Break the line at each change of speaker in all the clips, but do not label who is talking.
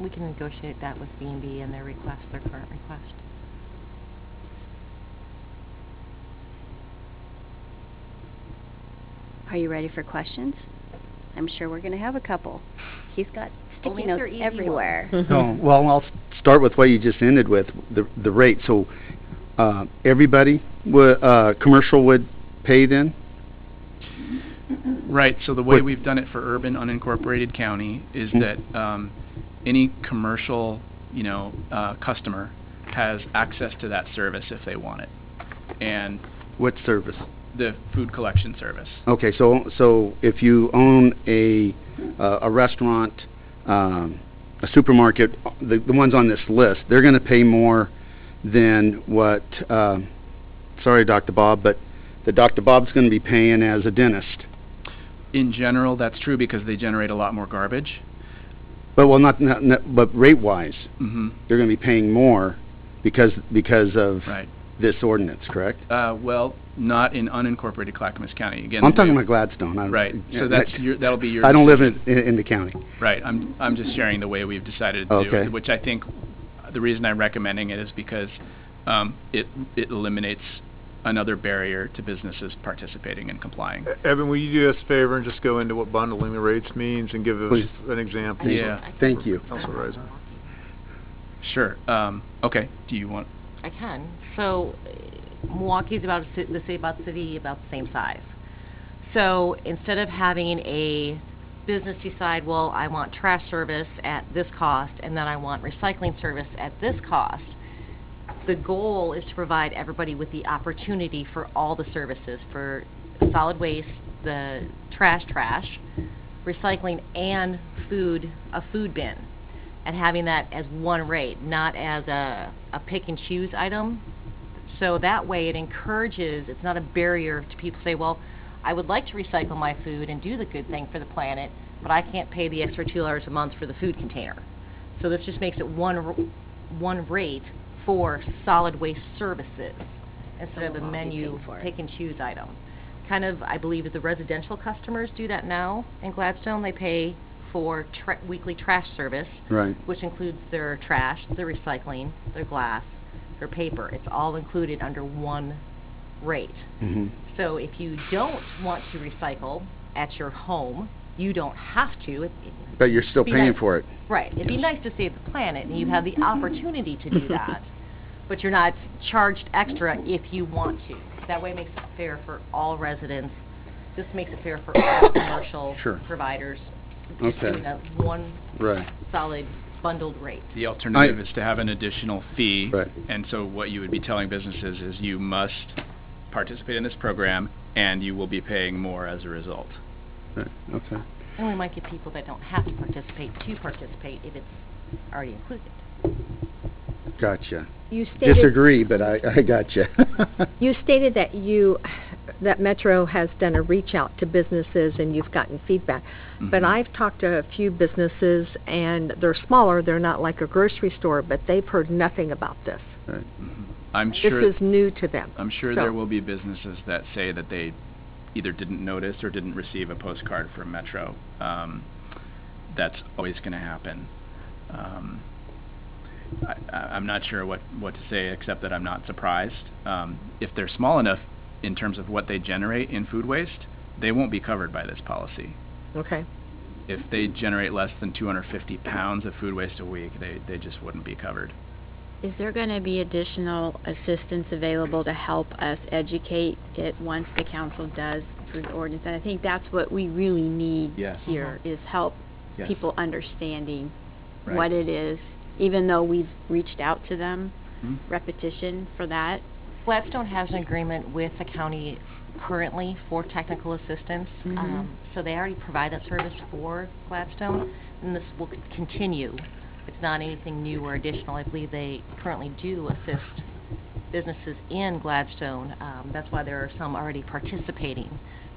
We can negotiate that with B and B and their request, their current request.
Are you ready for questions? I'm sure we're going to have a couple. He's got sticky
these
notes
are easy ones.
everywhere.
No, well, I'll s- start with what you just ended with, the, the rate. So, uh, everybody, wa- uh, commercial would pay then?
Right, so the way
But-
we've done it for urban unincorporated county is
Hmm.
that um, any commercial, you know, uh, customer has access to that service if they want it, and
What service?
the food collection service.
Okay, so, so if you own a, uh, a restaurant, um, a supermarket, the, the ones on this list, they're gonna pay more than what, um, sorry, Dr. Bob, but the Dr. Bob's gonna be paying as a dentist.
In general, that's true because they generate a lot more garbage.
But, well, not, not, not- but rate-wise,
hmm
they're gonna be paying more because, because of
Right.
this ordinance, correct?
Uh, well, not in unincorporated Clackamas County. Again,
I'm talking about Gladstone. I-
Right. So
yeah,
that's
that-
your, that'll be your.
I don't live
decision.
in, in in the county.
Right, I'm, I'm just sharing the way we've decided to do
Okay.
it, which I think, the reason I'm recommending it is because um, it, it eliminates another barrier to businesses participating and complying.
E- Evan, will you do us a favor and just go into what bundling the rates means and give us
Please.
an example?
Thank-
Yeah.
Thank you.
Council Riser.
Sure, um, okay, do you want,
I can. So uh, Milwaukee's about, a ci- the city about city about the same size. So instead of having a business decide, well, I want trash service at this cost, and then I want recycling service at this cost, the goal is to provide everybody with the opportunity for all the services, for solid waste, the trash trash, recycling, and food, a food bin. And having that as one rate, not as a, a pick and choose item. So that way it encourages, it's not a barrier to people say, well, I would like to recycle my food and do the good thing for the planet, but I can't pay the extra two dollars a month for the food container. So this just makes it one, r- one rate for solid waste services instead of
Someone
a
will be
menu
paying for it.
pick and choose item. Kind of, I believe, the residential customers do that now in Gladstone. They pay for tra- weekly trash service,
Right.
which includes their trash, their recycling, their glass, their paper. It's all included under one rate.
Mhm.
So if you don't want to recycle at your home, you don't have to. It- it-
But you're still
be
paying
nice-
for it.
Right. It'd be nice to save the planet, and you have the opportunity to do that, but you're not charged extra if you want to. That way it makes it fair for all residents. This makes it fair for all commercial
Sure.
providers. Just
Okay.
doing a one
Right.
solid bundled rate.
the alternative is to have an additional fee.
Right.
And so what you would be telling businesses is you must participate in this program, and you will be paying more as a result.
Right. Okay.
And we might get people that don't have to participate to participate if it's already included.
Gotcha.
You stated-
Disagree, but I, I gotcha.
You stated that you, that Metro has done a reach out to businesses and you've gotten feedback. But
Mhm.
I've talked to a few businesses and they're smaller, they're not like a grocery store, but they've heard nothing about this.
Right.
I'm
This
sure.
is new to them.
I'm sure
So-
there will be businesses that say that they either didn't notice or didn't receive a postcard from Metro. Um, that's always going to happen. Um, I, I, I'm not sure what, what to say except that I'm not surprised. Um, if they're small enough in terms of what they generate in food waste, they won't be covered by this policy.
Okay,
If they generate less than 250 pounds of food waste a week, they, they just wouldn't be covered.
Is there going to be additional assistance available to help us educate it once the council does approve the ordinance? And I think that's what we really need
Yes.
here,
Uh-huh.
is help
Yes.
people understanding
Right.
what it is, even though we've reached out to them,
Mhm.
repetition for that.
Gladstone has an agreement with the county currently for technical assistance.
Mhm.
Um, So they already provide that service for Gladstone, and this will c- continue. It's not anything new or additional. I believe they currently do assist businesses in Gladstone. Um, That's why there are some already participating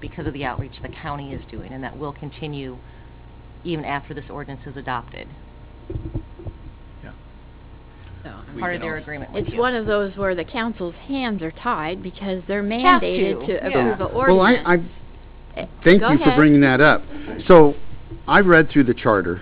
because of the outreach the county is doing, and that will continue even after this ordinance is adopted,
Yeah.
So
We
part
can
of their
als-
agreement with
It's
you.
one of those where the council's hands are tied because they're
Have to,
mandated to
yeah.
approve an
Well, I,
ordinance.
I, thank
Go
you for
ahead.
bringing that up. So, I read through the charter